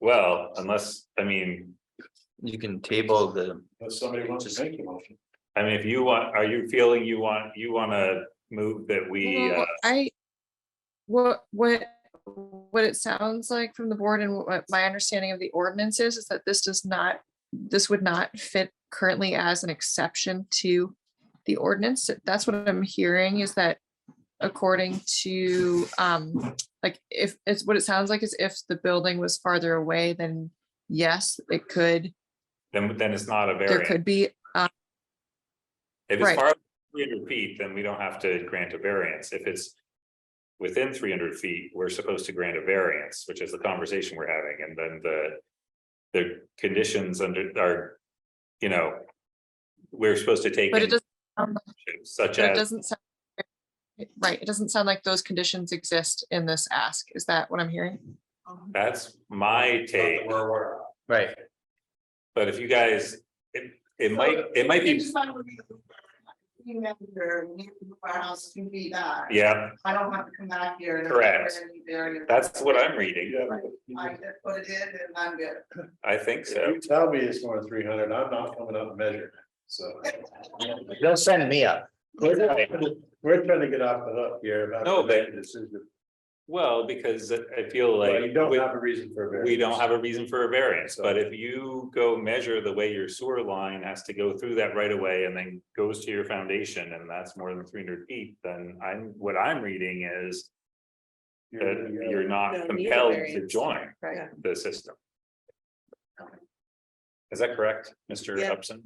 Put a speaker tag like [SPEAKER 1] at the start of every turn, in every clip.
[SPEAKER 1] Well, unless, I mean,
[SPEAKER 2] You can table the,
[SPEAKER 3] If somebody wants to make a motion.
[SPEAKER 1] I mean, if you want, are you feeling you want, you wanna move that we,
[SPEAKER 4] Uh-huh, Well,
[SPEAKER 1] uh,
[SPEAKER 4] I, what, what, what it sounds like from the board and what my understanding of the ordinance is, is that this does not, this would not fit currently as an exception to the ordinance. That's what I'm hearing is that according to, um, like, if, it's what it sounds like is if the building was farther away, then yes, it could,
[SPEAKER 1] then, then it's not a
[SPEAKER 4] Mm-hmm. there
[SPEAKER 1] variance.
[SPEAKER 4] could be,
[SPEAKER 1] If it's
[SPEAKER 4] right.
[SPEAKER 1] far three hundred feet, then we don't have to grant a variance. If it's within three hundred feet, we're supposed to grant a variance, which is the conversation we're having, and then the the conditions under are, you know, we're supposed to take
[SPEAKER 4] but it
[SPEAKER 1] into
[SPEAKER 4] doesn't, sound like-
[SPEAKER 1] consideration, such
[SPEAKER 4] but it
[SPEAKER 1] as
[SPEAKER 4] doesn't sound right, it doesn't sound like those conditions exist in this ask. Is that what I'm hearing?
[SPEAKER 1] That's my take,
[SPEAKER 3] We're aware of.
[SPEAKER 2] right,
[SPEAKER 1] but if you guys, it, it might, it might be,
[SPEAKER 5] Remember, our house can be that.
[SPEAKER 1] yeah,
[SPEAKER 5] I don't have to come back here. and-
[SPEAKER 1] Correct. that's what I'm reading.
[SPEAKER 3] Yeah,
[SPEAKER 5] I
[SPEAKER 3] but
[SPEAKER 5] just put it in and I'm good.
[SPEAKER 1] I think
[SPEAKER 3] If
[SPEAKER 1] so.
[SPEAKER 3] you tell me it's more than three hundred, I'm not coming up and measuring, so.
[SPEAKER 2] they'll send me up.
[SPEAKER 3] We're trying- we're trying to get off the hook here about.
[SPEAKER 1] No, but-
[SPEAKER 3] making a decision.
[SPEAKER 1] Well, because I feel
[SPEAKER 3] Well,
[SPEAKER 1] like.
[SPEAKER 3] You don't
[SPEAKER 1] with-
[SPEAKER 3] have a reason for a variance.
[SPEAKER 1] We don't have a reason for a variance, but if you go measure the way your sewer line has to go through that right away and then goes to your foundation and that's more than three hundred feet, then I'm, what I'm reading is that
[SPEAKER 3] You're-
[SPEAKER 1] you're
[SPEAKER 6] No,
[SPEAKER 1] not
[SPEAKER 6] need a
[SPEAKER 1] compelled to
[SPEAKER 6] variance.
[SPEAKER 1] join
[SPEAKER 6] Right.
[SPEAKER 1] the system. Is that correct, Mr.
[SPEAKER 6] Yeah.
[SPEAKER 1] Upson?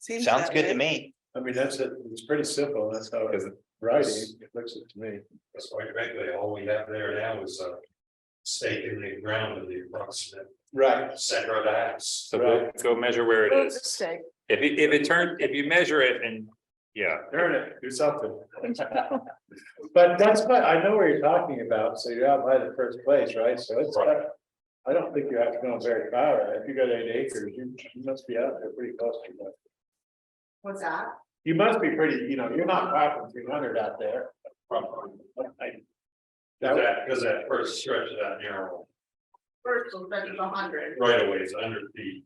[SPEAKER 6] Seems
[SPEAKER 2] Sounds
[SPEAKER 6] that
[SPEAKER 2] good to
[SPEAKER 6] way.
[SPEAKER 2] me.
[SPEAKER 3] I mean, that's it, it's pretty simple, that's how it's
[SPEAKER 1] Because
[SPEAKER 3] writing, it looks it to me.
[SPEAKER 7] That's quite frankly, all we have there now is a stake in the ground of the approximate
[SPEAKER 3] Right.
[SPEAKER 7] center of the house.
[SPEAKER 1] So go, go measure where it is.
[SPEAKER 6] Mistake.
[SPEAKER 1] If it, if it turned, if you measure it and, yeah,
[SPEAKER 3] Earn it, do something. But that's what, I know where you're talking about, so you're out by the first place, right, so it's.
[SPEAKER 7] Right.
[SPEAKER 3] I don't think you have to go very far, if you got eight acres, you you must be out there pretty close to that.
[SPEAKER 5] What's that?
[SPEAKER 3] You must be pretty, you know, you're not far from three hundred out there.
[SPEAKER 7] Probably.
[SPEAKER 3] I-
[SPEAKER 7] That,
[SPEAKER 3] That,
[SPEAKER 7] because that first stretch of that narrow
[SPEAKER 5] First, we'll bet it's a hundred.
[SPEAKER 7] right away is under feet,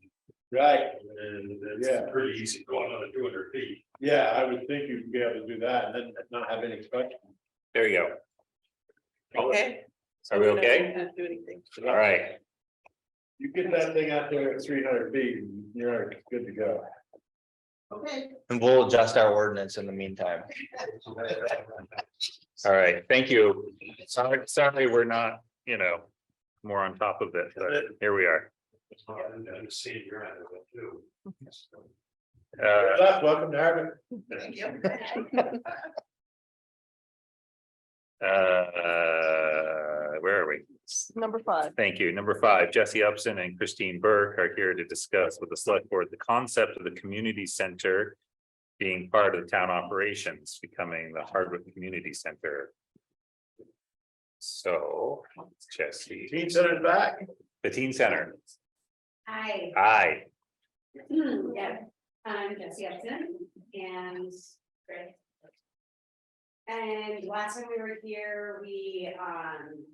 [SPEAKER 3] right,
[SPEAKER 7] and it's
[SPEAKER 3] Yeah.
[SPEAKER 7] pretty easy going on two hundred feet.
[SPEAKER 3] yeah, I would think you'd be able to do that and then not have any question.
[SPEAKER 1] there you go.
[SPEAKER 6] Okay. So
[SPEAKER 1] Are we
[SPEAKER 6] don't
[SPEAKER 1] okay?
[SPEAKER 6] have to Do anything.
[SPEAKER 1] All right,
[SPEAKER 3] You get that thing out there at three hundred feet, and you're good to go.
[SPEAKER 5] Okay.
[SPEAKER 2] And we'll adjust our ordinance in the meantime.
[SPEAKER 1] all right, thank you. Sorry, sorry, we're not, you know, more on top of it, but here we are.
[SPEAKER 7] It's not an understanding you're out of it too.
[SPEAKER 1] Uh,
[SPEAKER 3] What's up? Welcome to Harvard.
[SPEAKER 5] Thank you.
[SPEAKER 1] uh, where are we?
[SPEAKER 6] Number five.
[SPEAKER 1] Thank you. Number five, Jesse Upson and Christine Burke are here to discuss with the select board the concept of the community center. Being part of town operations, becoming the Hardwick Community Center. So, Jesse,
[SPEAKER 3] Team sent it back.
[SPEAKER 1] the teen center,
[SPEAKER 8] Hi,
[SPEAKER 1] aye.
[SPEAKER 8] yeah, I'm Jesse Upton and Chris. And last time we were here, we um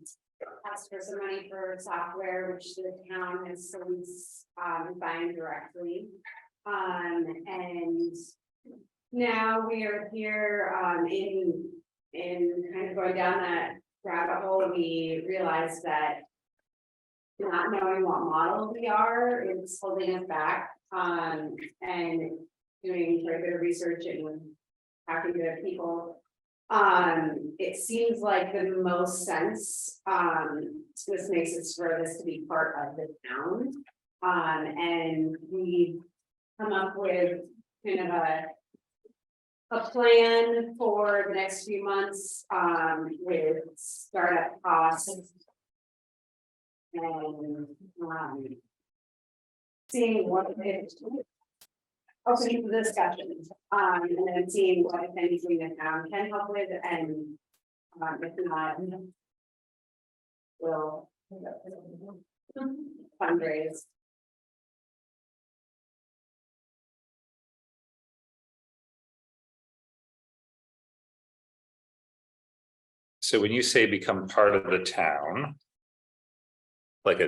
[SPEAKER 8] asked for some money for software, which the town has since um buying directly. Um, and now we are here um in in kind of going down that rabbit hole, we realized that not knowing what model we are, it's holding us back, um, and doing further research and talking to people. Um, it seems like the most sense, um, this makes it for this to be part of the town. Um, and we come up with kind of a a plan for the next few months, um, with startup costs and, um. Seeing what it. Opening the discussion, um, and then seeing what if anything the town can help with and, um, if not. Will. Fundraise.
[SPEAKER 1] So when you say become part of the town. Like a